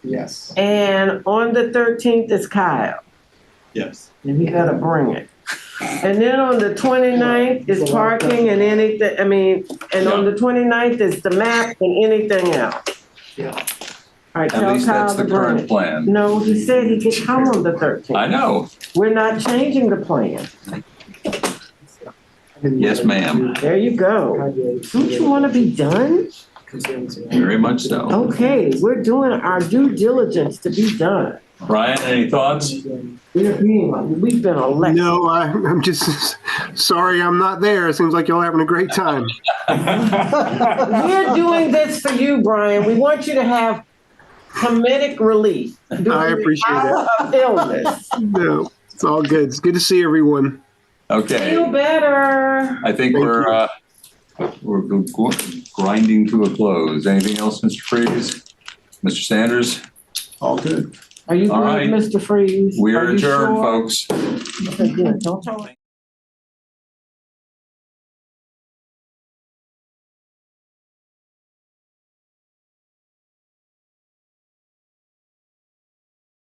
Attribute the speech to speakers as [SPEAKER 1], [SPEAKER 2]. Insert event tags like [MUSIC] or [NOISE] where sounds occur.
[SPEAKER 1] Yes.
[SPEAKER 2] And on the thirteenth is Kyle,
[SPEAKER 3] Yes.
[SPEAKER 2] and he gotta bring it. And then on the 29th is parking and anything, I mean, and on the 29th is the map and anything else.
[SPEAKER 1] Yeah.
[SPEAKER 2] All right,
[SPEAKER 4] At
[SPEAKER 2] tell
[SPEAKER 4] least that's
[SPEAKER 2] Kyle to
[SPEAKER 4] the
[SPEAKER 2] bring
[SPEAKER 4] current
[SPEAKER 2] it.
[SPEAKER 4] plan.
[SPEAKER 2] No, he said he could come on the
[SPEAKER 4] I
[SPEAKER 2] thirteenth.
[SPEAKER 4] know.
[SPEAKER 2] We're not changing the plan.
[SPEAKER 4] Yes, ma'am.
[SPEAKER 2] There you go. Don't you wanna be done?
[SPEAKER 4] Very much
[SPEAKER 2] Oh.
[SPEAKER 4] so.
[SPEAKER 2] Okay, we're doing our due diligence to be done.
[SPEAKER 4] Brian, any thoughts?
[SPEAKER 2] [LAUGHS] We're being, we've been elected.
[SPEAKER 5] No, I, I'm just [LAUGHS] sorry I'm not there. It seems like y'all having a great time.
[SPEAKER 2] We're doing this for you, Brian. We want you to have comedic relief.
[SPEAKER 5] I appreciate it.
[SPEAKER 2] Of illness.
[SPEAKER 5] No, it's all good. It's good to see everyone.
[SPEAKER 4] Okay,
[SPEAKER 2] Feel better.
[SPEAKER 4] I think we're, uh, we're g- grinding to a close. Anything else, Mr. Freeze? Mr. Sanders?
[SPEAKER 3] All good.
[SPEAKER 2] Are you
[SPEAKER 4] All right.
[SPEAKER 2] good, Mr. Freeze?
[SPEAKER 4] We are
[SPEAKER 2] Are you
[SPEAKER 4] adjourned,
[SPEAKER 2] sure?
[SPEAKER 4] folks.
[SPEAKER 2] Okay, good. Don't tell